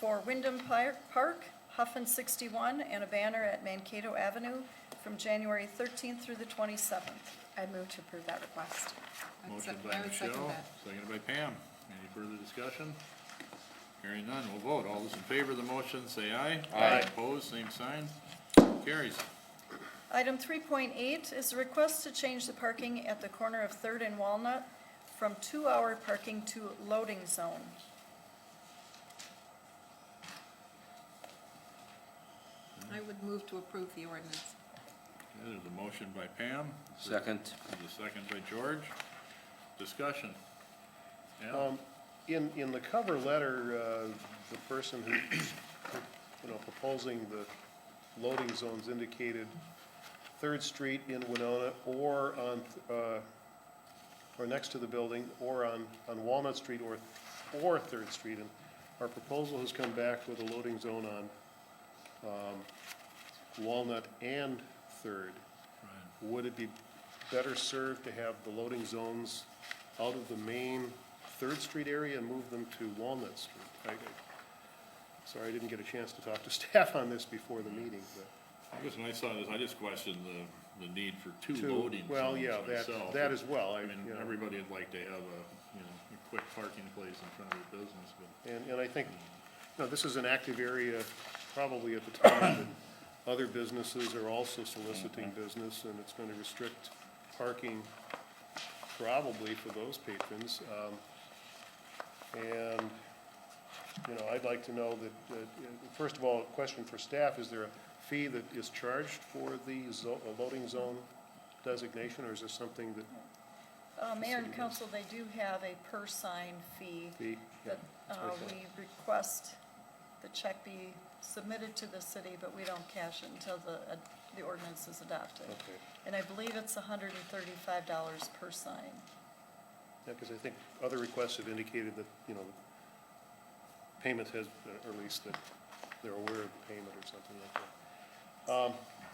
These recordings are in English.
for Wyndham Pi- Park, Huffin 61, and a banner at Mankato Avenue from January 13th through the 27th. I move to approve that request. I'd Motion sec- by I would second Michelle, that. seconded by Pam. Any further discussion? Hearing none, we'll vote. All those in favor of the motion, say aye. Aye. Opposed, same sign. Carries. Item 3.8 is a request to change the parking at the corner of Third and Walnut from two-hour parking to loading zone. I would move to approve the ordinance. Okay, There's a motion by Pam. Second. There's a second by George. Discussion. Al, Um, In, in the cover letter, uh, the person who, you know, proposing the loading zones indicated Third Street in Winona or on, uh, or next to the building, or on, on Walnut Street or, or Third Street. And our proposal has come back with a loading zone on um, Walnut and Third. Would it be better served to have the loading zones out of the main Third Street area and move them to Walnut Street? I- I- Sorry, I didn't get a chance to talk to staff on this before the meeting, but. I guess when I saw this, I just questioned the, the need for two Two, loading well, zones yeah, that- myself. that as well, I- I mean, you know. everybody would like to have a, you know, a quick parking place in front of their business, but. And, and I think, you know, this is an active area probably at the time, and other businesses are also soliciting business, and it's gonna restrict parking probably for those patrons. Um, And, you know, I'd like to know that, uh, first of all, a question for staff, is there a fee that is charged for the zo- uh, loading zone designation, or is this something that Uh, Mayor and council, they do have a per-sign fee the? that uh, Okay. we request the check be submitted to the city, but we don't cash it until the, uh, the ordinance is adopted. Okay. And I believe it's hundred and thirty-five dollars per sign. Yeah, because I think other requests have indicated that, you know, payment has, uh, or at least that they're aware of the payment or something like that.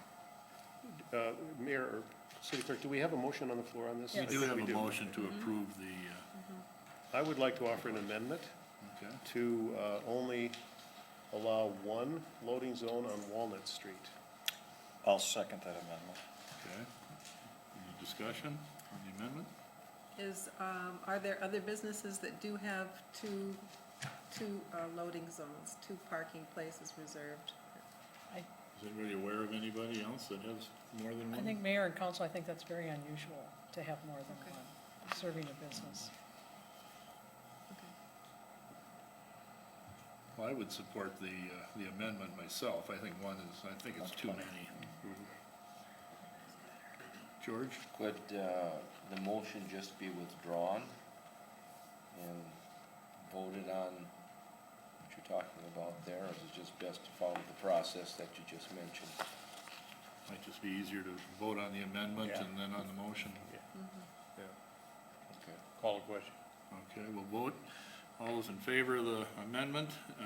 Um, uh, Mayor, or City Clerk, do we have a motion on the floor on this? We We do have We a motion to Mm-hmm. approve the, I would like to offer an amendment uh, okay. to uh, only allow one loading zone on Walnut Street. I'll second that amendment. Okay. Any discussion on the amendment? Is, um, are there other businesses that do have two, two uh, loading zones, two parking places reserved? Is anybody aware of anybody else that has more than I one? think mayor and council, I think that's very unusual to have more than Okay. one serving a business. Well, I would support the, uh, the amendment myself. I think one is, I think it's too many. George? Could uh, the motion just be withdrawn and voted on what you're talking about there, or is it just best to follow the process that you just mentioned? Might just be easier to vote on the amendment Yeah. and then on the motion. Mm-hmm. Okay. Call the question. Okay, we'll vote. All those in favor of the amendment, uh,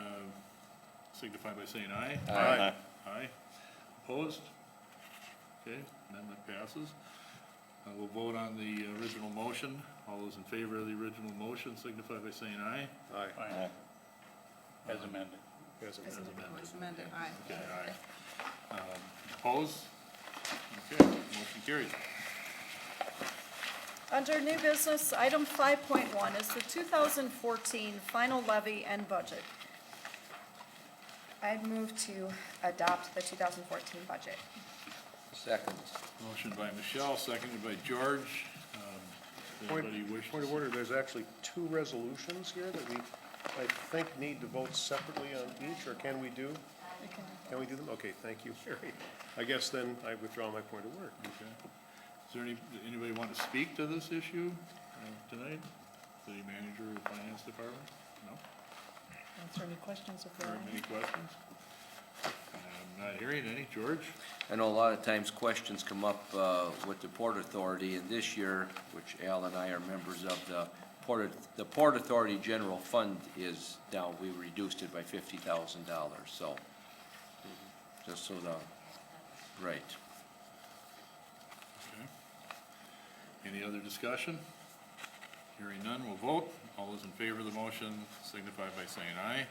signify by saying aye. Aye. Aye. Opposed? Okay, amendment passes. Uh, We'll vote on the original motion. All those in favor of the original motion signify by saying aye. Aye. Aye. As amended. As As amended. was amended, aye. Okay, aye. Um, Opposed? Okay, motion carries. Under new business, item five point one is the two thousand fourteen final levy and budget. I'd move to adopt the 2014 budget. Second. Motion by Michelle, seconded by George. Um, Point, Anybody wish? point of order, there's actually two resolutions here that we, I think, need to vote separately on each, or can we do? Can we do them? Okay, thank you, Mary. I guess then I withdraw my point of order. Okay. Is there any, anybody want to speak to this issue uh, tonight? City manager or finance department? No? Are there any questions of Are there that? any questions? I'm not hearing any. George? I know a lot of times questions come up uh, with the Port Authority, and this year, which Al and I are members of, the Port, the Port Authority General Fund is down, we reduced it by fifty thousand dollars, so, just so the, right. Okay. Any other discussion? Hearing none, we'll vote. All those in favor of the motion signify by saying aye.